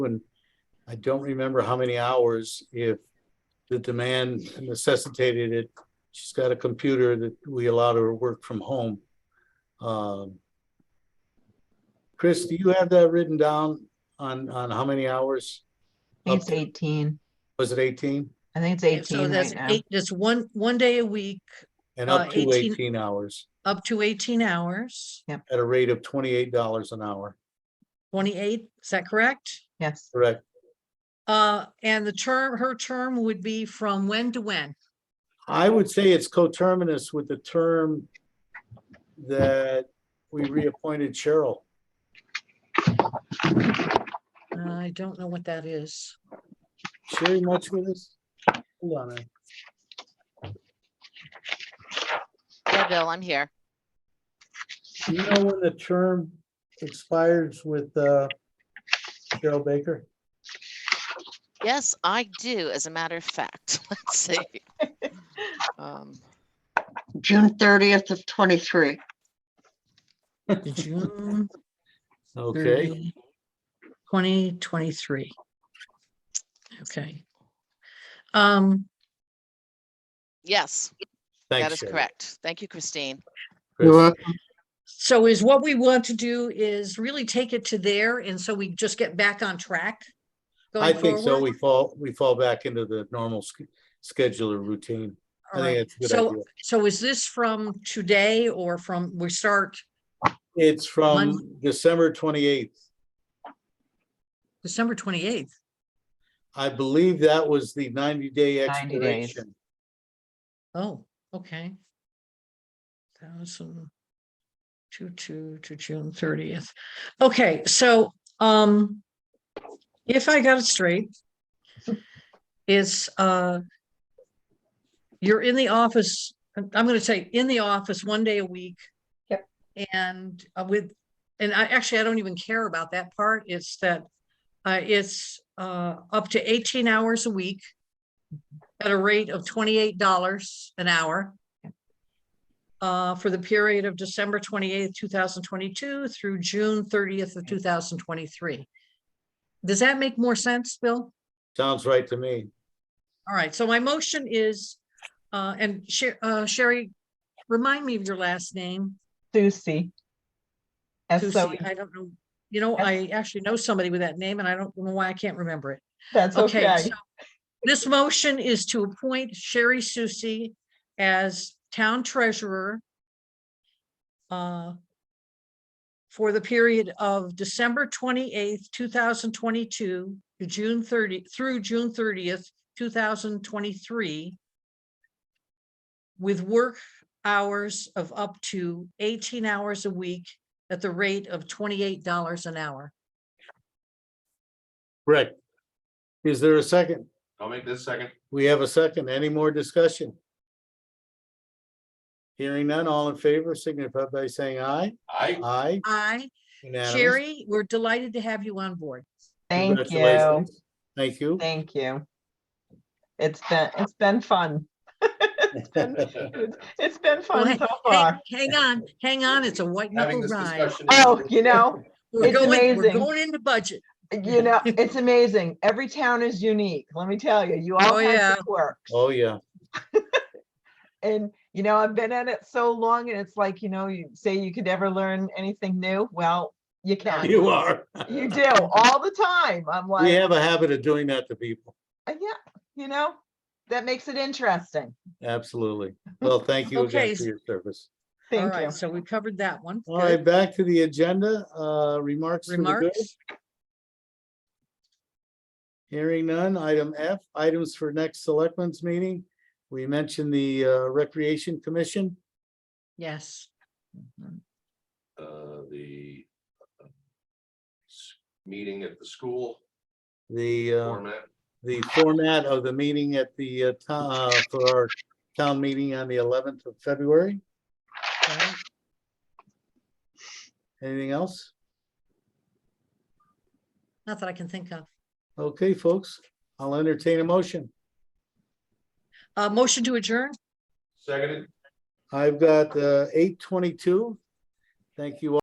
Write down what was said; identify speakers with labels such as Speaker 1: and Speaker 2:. Speaker 1: And I don't remember how many hours if the demand necessitated it. She's got a computer that we allowed her to work from home. Um, Chris, do you have that written down on, on how many hours?
Speaker 2: I think it's eighteen.
Speaker 1: Was it eighteen?
Speaker 2: I think it's
Speaker 3: And So
Speaker 2: eighteen
Speaker 3: that's
Speaker 2: right now.
Speaker 3: eight, that's one, one day a week,
Speaker 1: And up
Speaker 3: Uh,
Speaker 1: to
Speaker 3: 18
Speaker 1: eighteen hours
Speaker 3: up to eighteen hours,
Speaker 1: at a rate of twenty-eight dollars an hour,
Speaker 3: twenty-eight, is that correct?
Speaker 2: Yes,
Speaker 1: correct?
Speaker 3: Uh, and the term, her term would be from when to when?
Speaker 1: I would say it's coterminous with the term that we reappointed Cheryl.
Speaker 3: Uh, I don't know what that is.
Speaker 1: Sherry much with us? Hold on. a-
Speaker 4: Yeah, Bill, I'm here.
Speaker 1: Do you know when the term expires with uh, Cheryl Baker?
Speaker 4: Yes, I do, as a matter of fact. Let's see. Um,
Speaker 5: June thirtieth of twenty-three.
Speaker 3: June
Speaker 1: Okay,
Speaker 3: 30, 2023. Okay. Um,
Speaker 4: Yes, that
Speaker 1: thanks.
Speaker 4: is
Speaker 1: Sherry.
Speaker 4: correct. Thank you, Christine.
Speaker 1: Chris.
Speaker 3: so is what we want to do is really take it to there, and so we just get back on track?
Speaker 1: I
Speaker 3: going
Speaker 1: think so.
Speaker 3: forward?
Speaker 1: We fall, we fall back into the normal sch- scheduler routine. I
Speaker 3: All
Speaker 1: think
Speaker 3: right.
Speaker 1: it's a good idea.
Speaker 3: So, so is this from today or from, we start
Speaker 1: It's from
Speaker 3: Mon-
Speaker 1: December 28th.
Speaker 3: December twenty-eighth?
Speaker 1: I believe that was the 90-day
Speaker 2: 90 days.
Speaker 1: expiration.
Speaker 3: Oh, okay. Thousand two, two to June thirtieth. Okay, so, um, if I got it straight, it's, uh, you're in the office, I'm I'm gonna say in the office one day a week.
Speaker 2: Yep.
Speaker 3: And uh, with, and I, actually, I don't even care about that part. It's that, uh, it's, uh, up to eighteen hours a week at a rate of twenty-eight dollars an hour uh, for the period of December twenty-eighth, two thousand twenty-two through June thirtieth of two thousand twenty-three. Does that make more sense, Bill?
Speaker 1: Sounds right to me.
Speaker 3: All right, so my motion is, uh, and Sher- uh, Sherry, remind me of your last name.
Speaker 2: Susie. S O,
Speaker 3: Susie, I don't know, you know, I actually know somebody with that name and I don't know why I can't remember it.
Speaker 2: that's
Speaker 3: Okay,
Speaker 2: okay.
Speaker 3: so this motion is to appoint Sherry Susie as town treasurer uh, for the period of December twenty-eighth, two thousand twenty-two to June thirty, through June thirtieth, two thousand twenty-three with work hours of up to eighteen hours a week at the rate of twenty-eight dollars an hour.
Speaker 1: Correct. Is there a second?
Speaker 6: I'll make this second.
Speaker 1: We have a second. Any more discussion? Hearing none, all in favor, signify by saying aye.
Speaker 6: I,
Speaker 1: Aye.
Speaker 3: Aye.
Speaker 1: unanimous.
Speaker 3: Sherry, we're delighted to have you on board.
Speaker 2: Thank you.
Speaker 1: Congratulations. Thank you.
Speaker 2: Thank you. It's been, it's been fun. It's been- it's- It's been fun
Speaker 3: hey-
Speaker 2: so
Speaker 3: Hang,
Speaker 2: far.
Speaker 3: hang on, hang on, it's a white knuckle
Speaker 6: having this
Speaker 3: ride.
Speaker 6: discussion. is-
Speaker 2: Oh, you know,
Speaker 3: We're
Speaker 2: it's
Speaker 3: going, we're
Speaker 2: amazing.
Speaker 3: going into budget.
Speaker 2: you know, it's amazing. Every town is unique. Let me tell you, you
Speaker 3: Oh,
Speaker 2: all
Speaker 3: yeah.
Speaker 2: have your quirks.
Speaker 1: Oh, yeah.
Speaker 2: And, you know, I've been at it so long and it's like, you know, you say you could never learn anything new. Well, you can.
Speaker 1: You are.
Speaker 2: You do all the time. I'm like.
Speaker 1: We have a habit of doing that to people.
Speaker 2: Uh, Yeah, you know, that makes it interesting.
Speaker 1: Absolutely. Well, thank you
Speaker 3: Okay.
Speaker 1: again for your service.
Speaker 3: All
Speaker 2: Thank you.
Speaker 3: right, so we covered that one.
Speaker 1: All
Speaker 3: Good.
Speaker 1: right, back to the agenda, uh, remarks. to the good.
Speaker 3: Remarks?
Speaker 1: Hearing none. Item F, items for next selectmen's meeting. We mentioned the uh, Recreation Commission.
Speaker 3: Yes,
Speaker 6: Uh, the uh, s- meeting at the school
Speaker 1: The, uh,
Speaker 6: format.
Speaker 1: the format of the meeting at the, uh, to- uh, for our town meeting on the eleventh of February.
Speaker 3: right.
Speaker 1: Anything else?
Speaker 3: not that I can think of.
Speaker 1: Okay, folks, I'll entertain a motion.
Speaker 3: Uh, motion to adjourn?
Speaker 6: Seconded.
Speaker 1: I've got eight twenty-two. uh, Thank you all.